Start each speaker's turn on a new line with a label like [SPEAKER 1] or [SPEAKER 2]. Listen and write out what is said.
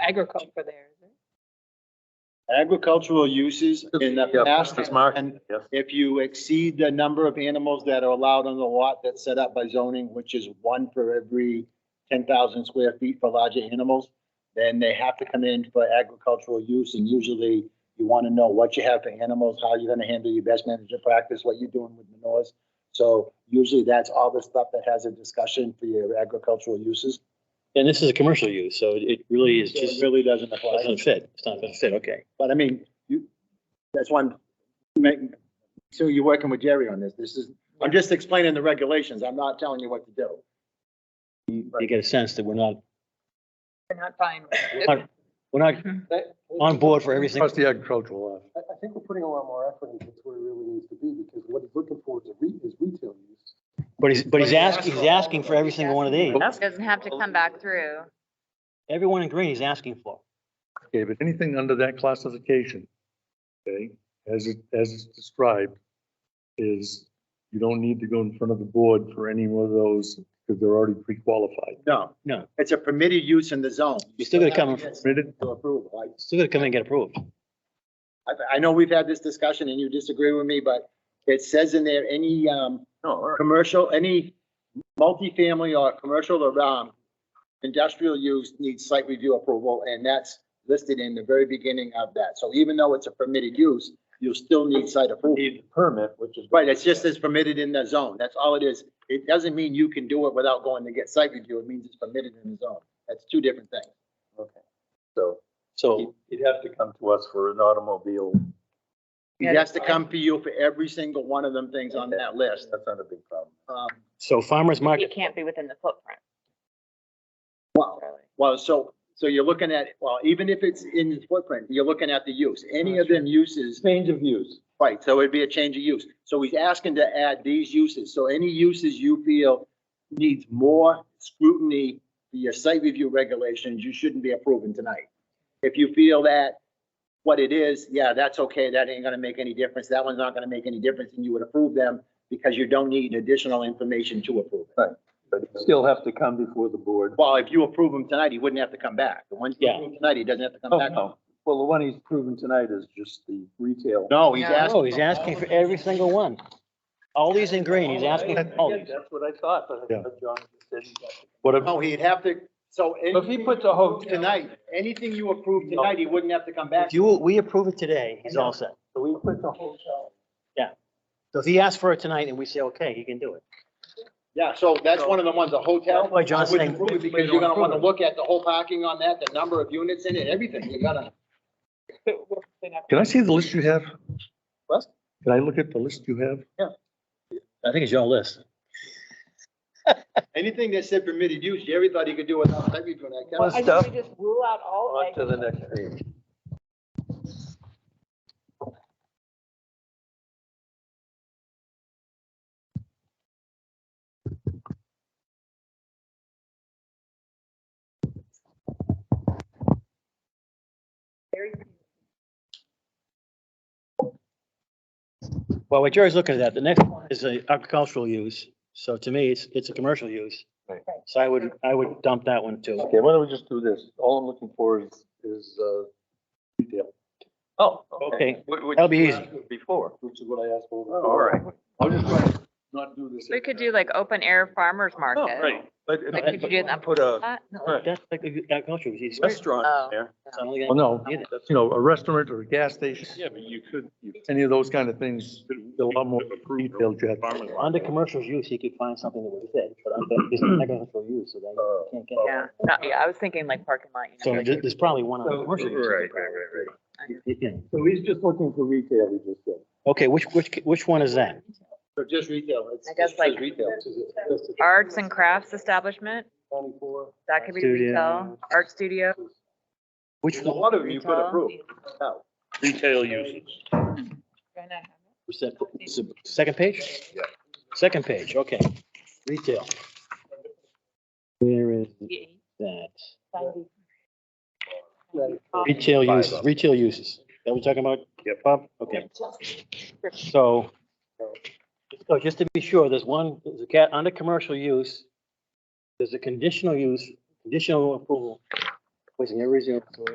[SPEAKER 1] agriculture there, is it?
[SPEAKER 2] agricultural uses in the
[SPEAKER 3] Yeah,
[SPEAKER 2] past.
[SPEAKER 3] Mrs. Mark,
[SPEAKER 2] And
[SPEAKER 3] yes.
[SPEAKER 2] if you exceed the number of animals that are allowed on the lot that's set up by zoning, which is one for every ten thousand square feet for larger animals, then they have to come in for agricultural use, and usually you want to know what you have for animals, how you're gonna handle your best management practice, what you're doing with manures. So usually that's all the stuff that has a discussion for your agricultural uses.
[SPEAKER 4] And this is a commercial use, so it it really is
[SPEAKER 2] So It
[SPEAKER 4] just,
[SPEAKER 2] really doesn't apply.
[SPEAKER 4] doesn't fit. It's not gonna fit, okay.
[SPEAKER 2] But I mean, you, that's why I'm making, so you're working with Jerry on this. This is, I'm just explaining the regulations. I'm not telling you what to do.
[SPEAKER 4] You get a sense that we're not,
[SPEAKER 1] We're not fine with it.
[SPEAKER 4] not- we're not on board for everything.
[SPEAKER 3] Plus the agricultural lot.
[SPEAKER 5] I, I think we're putting a lot more effort into where it really needs to be, because what he's looking for is a re, is retail use.
[SPEAKER 4] But he's, but he's asking, he's asking for every single one of these.
[SPEAKER 6] Doesn't have to come back through.
[SPEAKER 4] Everyone in green he's asking for.
[SPEAKER 3] Okay, but anything under that classification, okay, as it, as it's described, is you don't need to go in front of the board for any one of those because they're already pre-qualified.
[SPEAKER 2] No.
[SPEAKER 4] No.
[SPEAKER 2] It's a permitted use in the zone.
[SPEAKER 4] You're still gonna come in-
[SPEAKER 2] Yes,
[SPEAKER 3] Permitted?
[SPEAKER 2] To approval.
[SPEAKER 4] Still gonna come and get approved.
[SPEAKER 2] I, I, I know we've had this discussion and you disagree with me, but it says in there, any, um,
[SPEAKER 3] No.
[SPEAKER 2] commercial, any multifamily or commercial or, um, industrial use needs site review approval, and that's listed in the very beginning of that. So even though it's a permitted use, you'll still need site approval.
[SPEAKER 3] Need permit, which is.
[SPEAKER 2] Right, it's just as permitted in the zone, that's all it is. It doesn't mean you can do it without going to get site review, it means it's permitted in the zone. That's two different things.
[SPEAKER 3] So
[SPEAKER 4] So
[SPEAKER 3] he'd have to come to us for an automobile.
[SPEAKER 2] It has to come to you for every single one of them things on that list.
[SPEAKER 3] That's not a big problem.
[SPEAKER 2] Um,
[SPEAKER 4] So farmer's market,
[SPEAKER 6] It can't be within the footprint.
[SPEAKER 2] Well, well, so, so you're looking at, well, even if it's in its footprint, you're looking at the use, any of them uses.
[SPEAKER 3] Change of use.
[SPEAKER 2] Right, so it'd be a change of use. So he's asking to add these uses, so any uses you feel needs more scrutiny for your site review regulations, you shouldn't be approving tonight. If you feel that what it is, yeah, that's okay, that ain't gonna make any difference, that one's not gonna make any difference, and you would approve them because you don't need additional information to approve it.
[SPEAKER 3] But still have to come before the board.
[SPEAKER 2] Well, if you approve them tonight, he wouldn't have to come back. The ones you
[SPEAKER 4] Yeah.
[SPEAKER 2] approve tonight, he doesn't have to come
[SPEAKER 3] Oh,
[SPEAKER 2] back.
[SPEAKER 3] no. Well, the one he's proven tonight is just the retail.
[SPEAKER 2] No, he's
[SPEAKER 6] No.
[SPEAKER 2] asking.
[SPEAKER 4] oh, he's asking for every single one. All these in green, he's asking for all these.
[SPEAKER 7] That's what I thought, but
[SPEAKER 3] Yeah.
[SPEAKER 7] I thought John said he got
[SPEAKER 3] What, if-
[SPEAKER 2] No, Oh, he'd have to, so.
[SPEAKER 7] But if he puts a hotel-
[SPEAKER 2] Tonight, anything you approve tonight, he wouldn't have to come back.
[SPEAKER 4] If you, we approve it today, he's all set.
[SPEAKER 7] So we put the hotel.
[SPEAKER 4] So if he asks for it tonight and we say, okay, he can do it.
[SPEAKER 2] Yeah, so that's one of the ones, a hotel.
[SPEAKER 4] That's why John's
[SPEAKER 2] I wouldn't
[SPEAKER 4] saying-
[SPEAKER 2] approve it Because you're gonna wanna look at the whole parking on that, the number of units in it, everything. You gotta,
[SPEAKER 3] can I see the list you have?
[SPEAKER 2] What?
[SPEAKER 3] Can I look at the list you have?
[SPEAKER 4] I think it's your list.
[SPEAKER 2] anything that said permitted use, Jerry thought he could do without site review. and I
[SPEAKER 7] Well,
[SPEAKER 2] kept-
[SPEAKER 1] I
[SPEAKER 7] Stuff.
[SPEAKER 1] think we just rule out all
[SPEAKER 7] On
[SPEAKER 1] eggs.
[SPEAKER 7] to the next page.
[SPEAKER 4] Well, what Jerry's looking at, that, the next one is a agricultural use, so to me, it's, it's a commercial use.
[SPEAKER 3] Right.
[SPEAKER 4] So I would, I would dump that one too.
[SPEAKER 3] Okay, why don't we just do this? All I'm looking for is, is, uh, retail.
[SPEAKER 7] Oh,
[SPEAKER 4] Okay,
[SPEAKER 7] Which- which
[SPEAKER 4] that'll be
[SPEAKER 7] you uh,
[SPEAKER 4] easy.
[SPEAKER 7] asked Before.
[SPEAKER 3] which is what I asked for.
[SPEAKER 7] Oh, all right.
[SPEAKER 3] I'll just try to not do this.
[SPEAKER 6] We could do like open air farmerers
[SPEAKER 7] Oh,
[SPEAKER 6] market.
[SPEAKER 7] right. But if
[SPEAKER 6] Like, could you do that?
[SPEAKER 7] Put a
[SPEAKER 6] Uh, no,
[SPEAKER 7] Right.
[SPEAKER 4] That's like agricultural use.
[SPEAKER 7] restaurant
[SPEAKER 6] Oh.
[SPEAKER 7] there.
[SPEAKER 3] Well, no, you know, a restaurant or a gas station,
[SPEAKER 8] Yeah, but you could. you
[SPEAKER 3] any of those kind of things,
[SPEAKER 8] could-
[SPEAKER 3] a lot more
[SPEAKER 8] you could approve it.
[SPEAKER 3] detailed, Jack.
[SPEAKER 8] Farmers market.
[SPEAKER 4] Under commercial use, he could find something that would fit, but under, it's an agricultural use, so that you can't get.
[SPEAKER 6] Yeah, no, yeah, I was thinking like parking lot. you know,
[SPEAKER 4] So
[SPEAKER 6] like-
[SPEAKER 4] there- there's probably one on
[SPEAKER 7] So-
[SPEAKER 4] commercial use.
[SPEAKER 8] Right, right, right, right.
[SPEAKER 4] Yeah.
[SPEAKER 3] So he's just looking for retail, he just said.
[SPEAKER 4] Okay, which, which, which one is that?
[SPEAKER 2] So just retail. It's-
[SPEAKER 6] I guess
[SPEAKER 2] it's just
[SPEAKER 6] like-
[SPEAKER 2] Retail.
[SPEAKER 6] Arts and crafts establishment, that could be
[SPEAKER 4] Studio.
[SPEAKER 6] retail, art studio.
[SPEAKER 4] Which
[SPEAKER 2] There's A
[SPEAKER 4] one?
[SPEAKER 2] lot of you could
[SPEAKER 6] retail.
[SPEAKER 2] approve. No.
[SPEAKER 8] Retail uses.
[SPEAKER 1] Why not have it?
[SPEAKER 4] Was that- is it Second page? Yeah. Second page, okay. Retail. Where is that? Retail
[SPEAKER 8] Five
[SPEAKER 4] uses,
[SPEAKER 8] of them.
[SPEAKER 4] retail uses. That we talking about?
[SPEAKER 8] Yep.
[SPEAKER 4] Bob? Okay. So, so just to be sure, there's one, there's a cat, under commercial use, there's a conditional use, conditional approval Wasting every single.